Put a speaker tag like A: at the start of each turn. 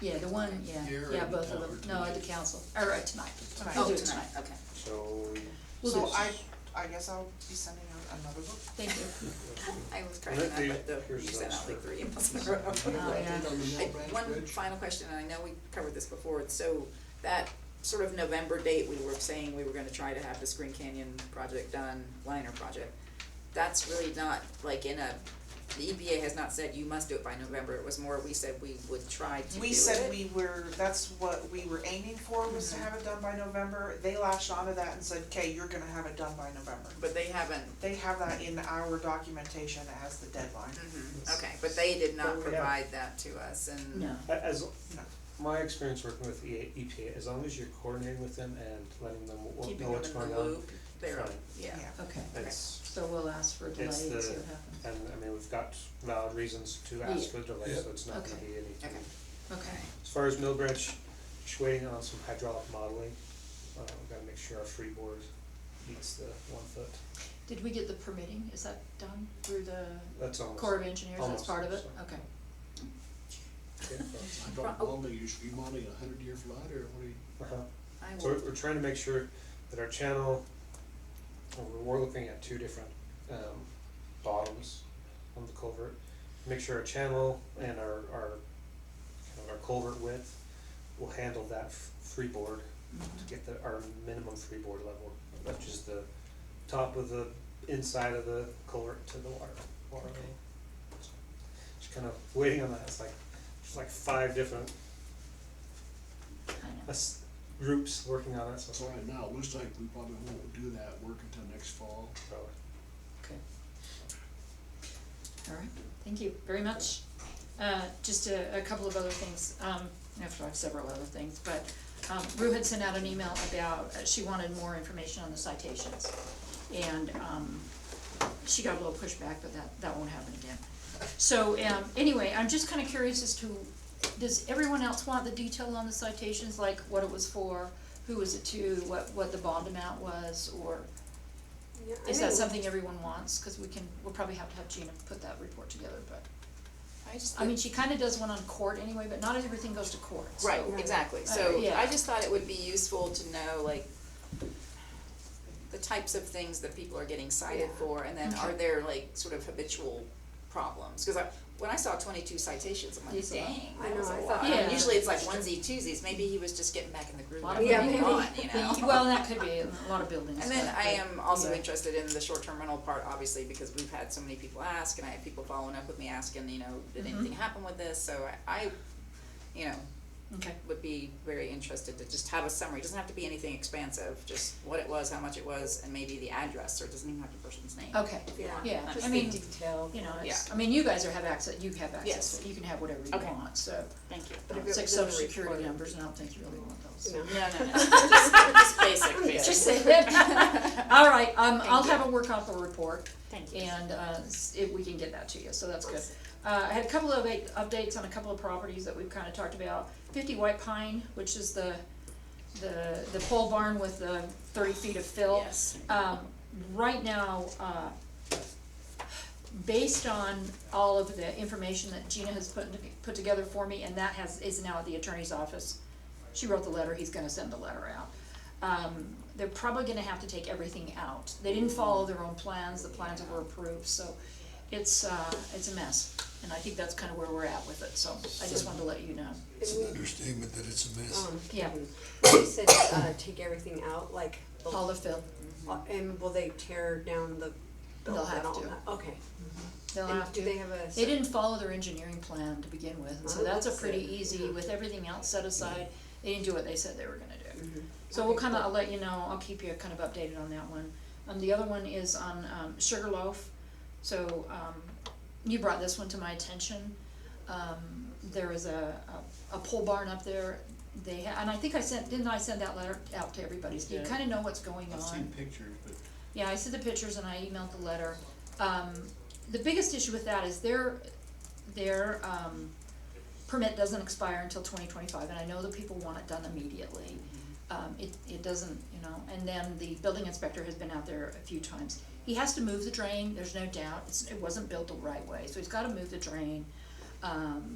A: Yeah, the one, yeah,
B: Here or
A: yeah,
B: at the
A: both of
B: town?
A: them, no, at the council, or uh, tonight.
C: Tonight.
A: Oh,
C: Do it
A: tonight, okay,
B: So,
A: We'll
C: So
A: do-
C: I, I guess I'll be sending out another book.
A: thank you.
D: I was trying
B: Let
D: not,
B: me-
D: but the,
B: here's
D: you sent
B: those
D: out like
B: for-
D: three emails in a row.
A: Oh, yeah.
D: I- One final question, and I know we covered this before, so that sort of November date, we were saying we were gonna try to have this Green Canyon project done, liner project. That's really not like in a, the EPA has not said you must do it by November, it was more we said we would try to do it. Mm-hmm.
C: We said we were, that's what we were aiming for, was to have it done by November, they latched onto that and said, okay, you're gonna have it done by November.
D: But they haven't,
C: They have that in our documentation as the deadline.
D: mhm, okay, but they did
B: But
D: not
B: we have-
D: provide that to us and.
A: No,
B: a- as,
C: No.
B: my experience working with E the EPA, as long as you're coordinating with them and letting them w-
D: Keeping them
B: know what's
D: in
B: going
D: the
B: on,
D: loop, they're,
B: fine.
D: yeah.
C: Yeah.
A: okay,
B: it's,
A: so we'll ask for a delay and
B: It's
A: see what
B: the-
A: happens.
B: and, I mean, we've got valid reasons to ask
A: Yeah.
B: for delay, so it's not gonna
A: Okay.
B: be anything.
D: Okay.
A: Okay,
B: As far as Millbridge, just waiting on some hydraulic modeling, uh, we gotta make sure our freeboard meets the one foot,
A: did we get the permitting, is that done through the
B: that's almost.
A: Corps of Engineers, that's
B: Almost,
A: part of it,
B: so.
A: okay,
D: Pro-
E: Drop
D: oh,
E: bomb, you should be modeling a hundred year flight or what do you?
B: Uh-huh.
D: I
B: So
D: will,
B: we're, we're trying to make sure that our channel, we're, we're looking at two different, um, bottoms on the culvert. Make sure our channel and our, our, kind of our culvert width will handle that f- freeboard to get the, our minimum freeboard level, which is the top of the inside of the culvert to the water, water
A: Okay.
B: level. So, Just kind of waiting on that, it's like, there's like five different,
A: I know,
B: us, groups working on it, so it's
E: So right now, it looks like we probably won't do that work until next fall.
B: so-
A: okay. All right, thank you very much. Uh, just a, a couple of other things, um, after I have several other things, but, um, Rue had sent out an email about, uh, she wanted more information on the citations. And, um, she got a little pushback, but that, that won't happen again. So, um, anyway, I'm just kinda curious as to, does everyone else want the detail on the citations, like what it was for? Who was it to, what, what the bond amount was, or is that something everyone wants? Cause we can, we'll probably have to have Gina put that report together, but.
D: I just.
A: I mean, she kinda does one on court anyway, but not everything goes to court, so.
D: Right, exactly,
A: Uh,
D: so
A: yeah.
D: I just thought it would be useful to know, like, the types of things that people are getting cited
F: Yeah.
D: for, and then
A: Okay.
D: are there like sort of habitual problems? Cause I, when I saw twenty-two citations, I'm like,
A: It's a lot.
D: dang,
F: I
D: that
F: know,
D: was a
F: I
D: lot.
F: thought-
A: Yeah.
D: Usually it's like onesies, twosies, maybe he was just getting back in the groove,
A: A lot
D: of
A: of
F: Yeah,
D: moving
F: maybe.
D: on, you know?
A: The- Well, that could be, a lot of buildings.
D: And then
A: but-
D: I am also
A: yeah.
D: interested in the short-term rental part, obviously, because we've had so many people ask, and I had people following up with me asking, you know, did
A: Mhm.
D: anything happen with this? So I, I, you know,
A: Okay,
D: would be very interested to just have a summary, doesn't have to be anything expansive, just what it was, how much it was, and maybe the address, or it doesn't even have the person's name.
A: okay,
F: Yeah.
A: yeah,
D: Just
A: I
F: Just the
A: mean,
F: detail.
A: you know, it's, I mean, you guys are have access, you have access, to it. you can have whatever you
D: Okay.
A: want, so.
D: Thank you.
F: But if
A: um,
F: it
A: It's like
F: was in the
A: social security
F: report-
A: numbers, and I don't think you really want those.
F: No.
D: No, no, no, just, just basic, basic.
A: Just say that. All right, um, I'll have a workout for report,
D: Thank you.
A: and, uh, s- if we can get that to you, so that's good. Uh, I had a couple of update- updates on a couple of properties that we've kinda talked about. Fifty White Pine, which is the, the, the pole barn with the thirty feet of fill.
D: Yes.
A: Um, right now, uh, based on all of the information that Gina has put, put together for me, and that has, is now at the attorney's office. She wrote the letter, he's gonna send the letter out. Um, they're probably gonna have to take everything out. They didn't follow their own plans, the plans were approved, so it's, uh, it's a mess. And I think that's kinda where we're at with it, so I just wanted to let you know.
F: It's an
E: understatement that it's a
A: Yeah.
F: She um, said, uh, take everything out, like, the-
A: All of Phil,
F: uh, and will they tear down the
A: They'll
F: building
A: have
F: and all
A: to.
F: that? Okay.
A: they'll
F: And
A: have to.
F: Do they have a?
A: They didn't follow their engineering plan to begin with, and so
F: Oh,
A: that's a
F: that's
A: pretty
F: good.
A: easy, with everything else set aside, they didn't do what they said they were gonna do. So we'll
F: Mm-hmm. Okay,
A: kinda,
F: cool.
A: I'll let you know, I'll keep you kind of updated on that one. Um, the other one is on, um, Sugarloaf, so, um, you brought this one to my attention. Um, there is a, a, a pole barn up there, they, ha- and I think I sent, didn't I send that letter out to everybody, so you
E: Yeah.
A: kinda know what's going on.
E: I've seen pictures, but
A: Yeah, I see the pictures and I emailed the letter. Um, the biggest issue with that is their, their, um, permit doesn't expire until twenty twenty-five, and I know that people want it done immediately. Um, it, it doesn't, you know, and then the building inspector has been out there a few times. He has to move the drain, there's no doubt, it's, it wasn't built the right way, so he's gotta move the drain. Um,